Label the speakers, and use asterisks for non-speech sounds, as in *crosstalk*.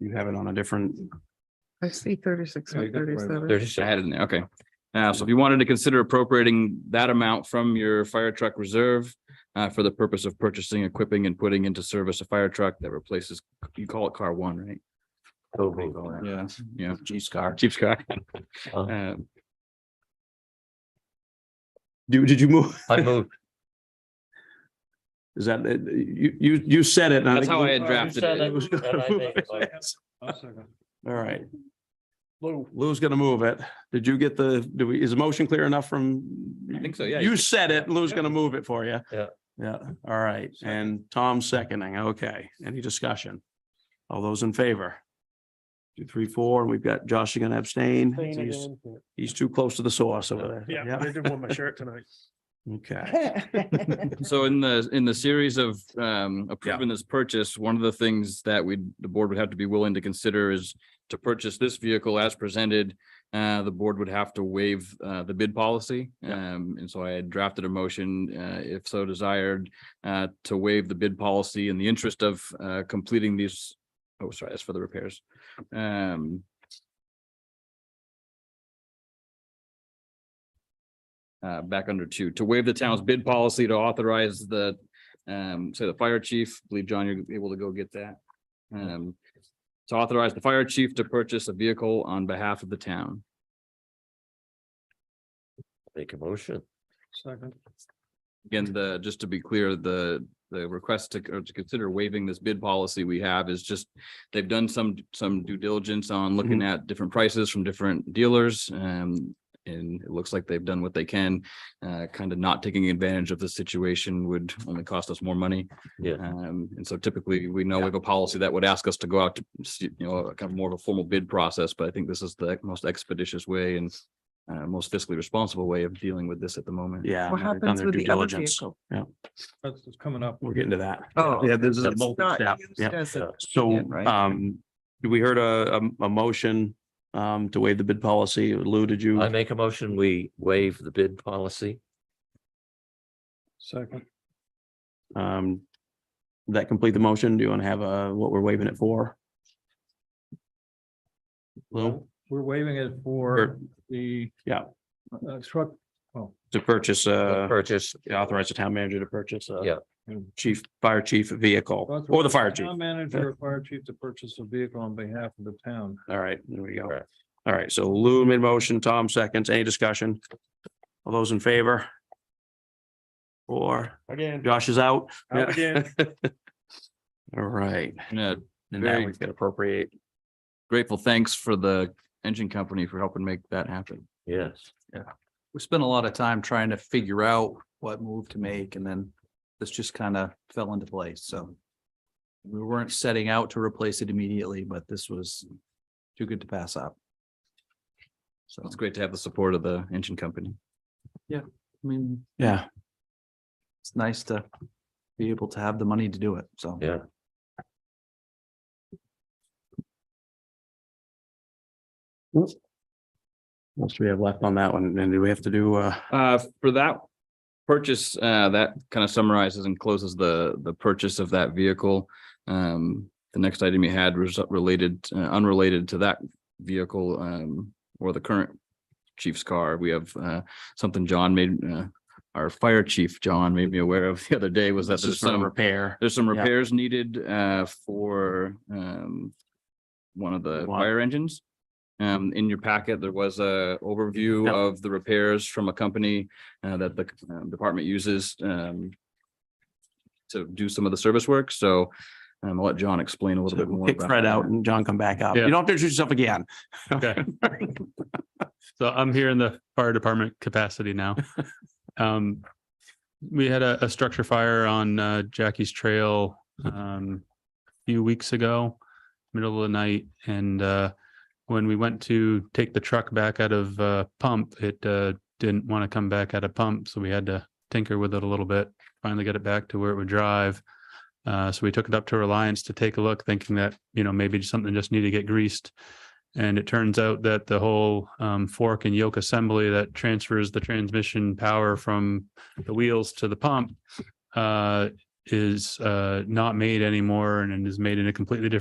Speaker 1: You have it on a different.
Speaker 2: I see thirty-six
Speaker 1: Yeah, you
Speaker 2: and
Speaker 1: got it right.
Speaker 2: thirty-seven.
Speaker 3: There's just a head in there, okay. Uh, so if you wanted to consider appropriating that amount from your fire truck reserve uh, for the purpose of purchasing, equipping and putting into service a fire truck that replaces, you call it car one, right?
Speaker 4: Oh,
Speaker 3: Yeah, yeah,
Speaker 4: Chief's car.
Speaker 3: Chief's car.
Speaker 4: Oh.
Speaker 3: *laughs* Uh,
Speaker 1: Do, did you move?
Speaker 3: *laughs*
Speaker 4: I move.
Speaker 1: Is
Speaker 3: uh,
Speaker 1: that, it? you, you, you said it. and I
Speaker 3: That's
Speaker 1: think
Speaker 3: how I
Speaker 1: you-
Speaker 3: had drafted
Speaker 4: said
Speaker 3: it.
Speaker 4: it. And I made it, like-
Speaker 1: All right. Lou, Lou's gonna move it. Did you get the, do we, is the motion clear enough from?
Speaker 3: I think so, yeah.
Speaker 1: You said it, Lou's gonna move it for you.
Speaker 4: Yeah.
Speaker 1: Yeah, all right. And Tom's seconding, okay. Any discussion? All those in favor? Two, three, four, and we've got Josh again abstain.
Speaker 5: *laughs*
Speaker 1: He's, he's too close to the source over there.
Speaker 5: Yeah, I did want my shirt tonight.
Speaker 1: Okay,
Speaker 3: *laughs* So in the, in the series of um approving this purchase, one of the things that we, the board would have to be willing to consider is to purchase this vehicle as presented, uh, the board would have to waive uh the bid policy. Um, and so I had drafted a motion, uh, if so desired, uh, to waive the bid policy in the interest of uh completing these. Oh, sorry, that's for the repairs. Um. uh, back under two, to waive the town's bid policy to authorize the, um, say the fire chief, I believe, John, you're able to go get that. Um, to authorize the fire chief to purchase a vehicle on behalf of the town.
Speaker 4: *laughs* Make a motion.
Speaker 5: Second.
Speaker 3: Again, the, just to be clear, the, the request to, or to consider waiving this bid policy we have is just, they've done some, some due diligence on looking at different prices from different dealers, um, and it looks like they've done what they can, uh, kind of not taking advantage of the situation would only cost us more money.
Speaker 4: Yeah.
Speaker 3: Um, and so typically, we know we have a policy that would ask us to go out to, see- you know, kind of more of a formal bid process, but I think this is the most expeditious way and uh, most fiscally responsible way of dealing with this at the moment.
Speaker 1: yeah.
Speaker 2: What
Speaker 1: they've done
Speaker 2: happens
Speaker 1: their
Speaker 2: with
Speaker 1: due
Speaker 2: the other
Speaker 1: diligence.
Speaker 2: vehicle?
Speaker 1: Yeah,
Speaker 5: That's what's coming up.
Speaker 1: we're getting to that.
Speaker 2: Oh.
Speaker 1: Yeah, this is a
Speaker 2: It's not
Speaker 1: multi-step,
Speaker 2: used
Speaker 1: yeah.
Speaker 2: as a-
Speaker 1: So,
Speaker 3: Yeah, right.
Speaker 1: um, we heard a, a, a motion, um, to waive the bid policy. Lou, did you?
Speaker 4: I make a motion, we waive the bid policy.
Speaker 5: Second.
Speaker 1: Um, that complete the motion? Do you want to have a, what we're waiving it for? Lou,
Speaker 5: We're waiving it for the.
Speaker 1: Yeah.
Speaker 5: uh, Truck,
Speaker 1: to purchase, uh,
Speaker 4: Purchase.
Speaker 1: authorize the town manager to purchase a
Speaker 4: Yeah.
Speaker 1: chief, fire chief vehicle or the fire chief.
Speaker 5: Town manager, or fire chief to purchase a vehicle on behalf of the town.
Speaker 1: All right, there we go.
Speaker 4: Correct.
Speaker 1: All right, so Lou made motion, Tom seconds, any discussion? All those in favor? Or
Speaker 5: Again.
Speaker 1: Josh is out?
Speaker 5: Out
Speaker 1: *laughs*
Speaker 5: again.
Speaker 1: All right,
Speaker 3: And uh,
Speaker 1: and now
Speaker 3: Very-
Speaker 1: we've got appropriate.
Speaker 3: grateful thanks for the engine company for helping make that happen.
Speaker 4: Yes.
Speaker 6: we spent a lot of time trying to figure out what move to make and then this just kind of fell into place, so. We weren't setting out to replace it immediately, but this was too good to pass up. So,
Speaker 3: It's great to have the support of the engine company.
Speaker 6: I mean,
Speaker 1: Yeah,
Speaker 6: it's nice to be able to have the money to do it, so.
Speaker 4: Yeah.
Speaker 1: what else do we have left on that one? And do we have to do, uh,
Speaker 3: Uh, for that purchase, uh, that kind of summarizes and closes the, the purchase of that vehicle. Um, the next item you had was related, uh, unrelated to that vehicle, um, or the current chief's car. We have, uh, something John made, uh, our fire chief, John, made me aware of the other day was that
Speaker 1: this
Speaker 3: there's
Speaker 1: is for
Speaker 3: some
Speaker 1: repair?
Speaker 3: There's some
Speaker 1: Yeah.
Speaker 3: repairs needed uh for um one of the
Speaker 1: One.
Speaker 3: fire engines. Um, in your packet, there was a overview
Speaker 1: Yeah.
Speaker 3: of the repairs from a company uh that the um, department uses um to do some of the service work. So um, I'll let John explain a little bit more.
Speaker 1: Pick
Speaker 3: about
Speaker 1: Fred
Speaker 3: that.
Speaker 1: out and John come back up. You
Speaker 7: Yeah.
Speaker 1: don't have to introduce yourself again.
Speaker 7: Okay. So I'm here in the fire department capacity now. Um, we had a, a structure fire on uh, Jackie's Trail, um, a few weeks ago, middle of the night. And, uh, when we went to take the truck back out of, uh, pump, it, uh, didn't want to come back out of pump. So we had to tinker with it a little bit, finally get it back to where it would drive. Uh, so we took it up to Reliance to take a look, thinking that, you know, maybe something just needed to get greased. And it turns out that the whole um, fork and yoke assembly that transfers the transmission power from the wheels to the pump uh, is uh, not made anymore and is made in a completely different